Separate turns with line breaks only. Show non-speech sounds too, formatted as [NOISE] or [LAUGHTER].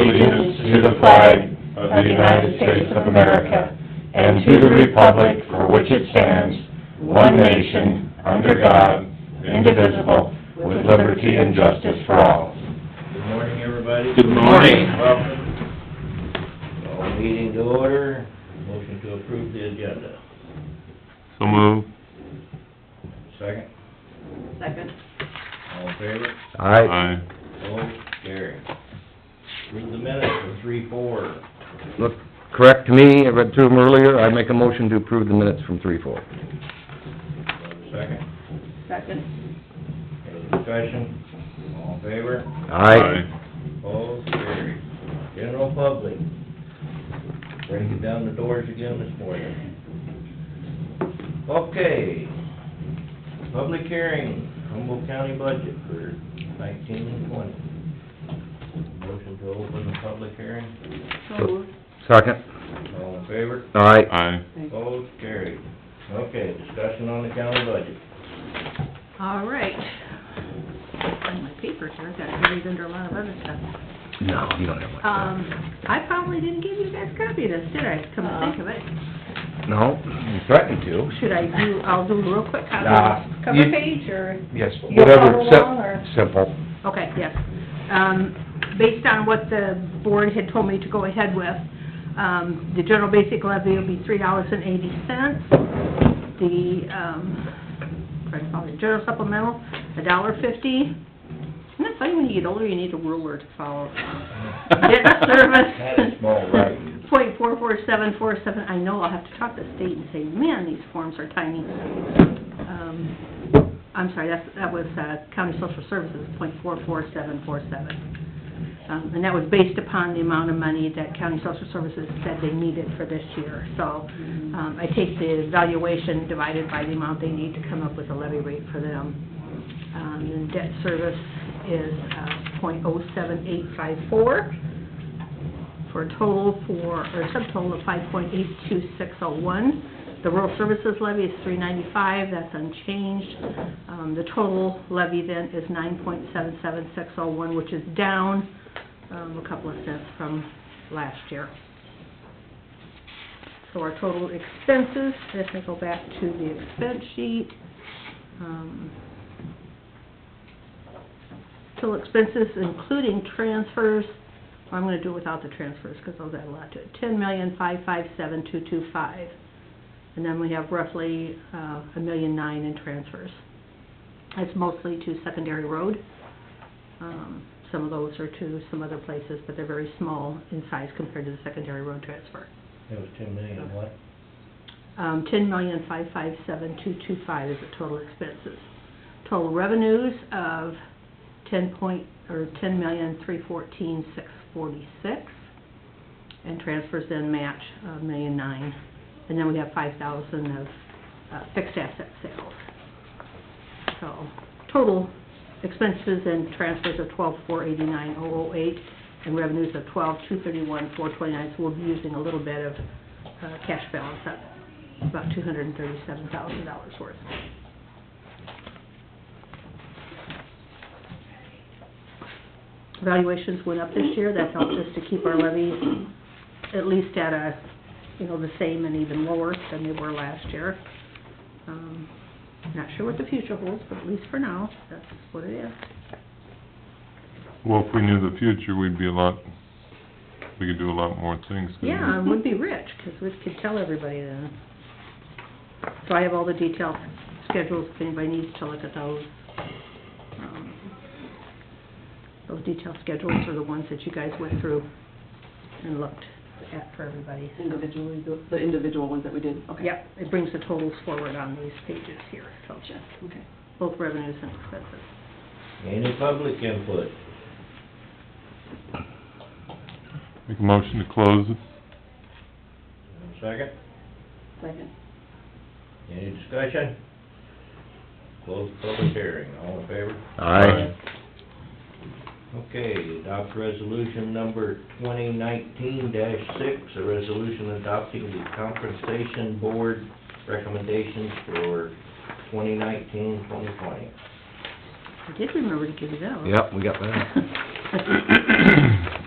allegiance to the flag of the United States of America and to the republic for which it stands, one nation, under God, indivisible, with liberty and justice for all.
Good morning, everybody.
Good morning.
Welcome. Call meeting to order. Motion to approve the agenda.
So move.
Second,
Second.
all in favor?
Aye.
Opposed? Carried. Approve the minutes for three, four.
Look, correct me, I read through them earlier, I make a motion to approve the minutes from three four.
Second,
Second.
any discussion? All in favor?
Aye.
Opposed? Carried. General public. Breaking down the doors again this morning. Okay. Public hearing, Humboldt County budget for nineteen and twenty. Motion to open the public hearing,
So moved.
Second,
all in favor?
aye.
Aye.
Opposed, carried. Okay, discussion on the county budget.
All right. Find my papers here, I've got to read under a lot of other stuff.
No, you don't have one.
Um, I probably didn't give you guys a copy of this, did I? Come to think of it.
No, you threatened to.
Should I do, I'll do a real quick copy
Nah,
of the cover
you-
page, or?
Yes,
You'll
whatever,
follow along, or-
except,
[LAUGHS]
simple.
Okay, yes. Um, based on what the board had told me to go ahead with, um, the general basic levy will be three dollars and eighty cents. The, um, trying to follow the general supplemental, a dollar fifty. Isn't it funny when you get older, you need a ruler to follow? Debt
That is
service,
small
[LAUGHS]
writing.
point four four seven four seven, I know I'll have to talk to state and say, man, these forms are tiny. Um, I'm sorry, that's, that was, uh, county social services, point four four seven four seven. Um, and that was based upon the amount of money that county social services said they needed for this year. So, um, I take the valuation divided by the amount they need to come up with a levy rate for them. Um, and debt service is, uh, point oh seven eight five four for a total for, or a subtotal of five point eight two six oh one. The rural services levy is three ninety-five, that's unchanged. Um, the total levy then is nine point seven seven six oh one, which is down, um, a couple of cents from last year. So our total expenses, if I go back to the expense sheet, um, total expenses including transfers, I'm gonna do without the transfers, because those add a lot to it, ten million, five, five, seven, two, two, five. And then we have roughly, uh, a million nine in transfers. That's mostly to secondary road. Um, some of those are to some other places, but they're very small in size compared to the secondary road transfer.
It was ten million, what?
Um, ten million, five, five, seven, two, two, five is the total expenses. Total revenues of ten point, or ten million, three, fourteen, six, forty-six. And transfers then match a million nine. And then we have five thousand of, uh, fixed asset sales. So, total expenses and transfers of twelve, four, eighty-nine, oh, oh, eight, and revenues of twelve, two, thirty-one, four, twenty-nine. So we'll be using a little bit of, uh, cash balance up about two hundred and thirty-seven thousand dollars worth. Valuations went up this year, that helped us to keep our levy at least at a, you know, the same and even lower than they were last year. Um, Not sure what the future holds, but at least for now, that's what it is.
Well, if we knew the future, we'd be a lot, we could do a lot more things. couldn't we?
Yeah, and we'd be rich, 'cause we could tell everybody then. So I have all the detailed schedules, if anybody needs to look at those. Um, Those detailed schedules are the ones that you guys went through and looked at for everybody.
Individually, the- the individual ones that we did, okay.
Yep, it brings the totals forward on these pages here, so
Gotcha, okay.
both revenues and expenses.
Any public input?
Make a motion to close it.
Second?
Second.
Any discussion? Close the public hearing, all in favor?
Aye.
Okay, adopt resolution number twenty nineteen six, a resolution adopting the compensation board recommendations for 2019-2020.
I did remember to give you that one. [LAUGHS]
Yep, we got that.
Aye.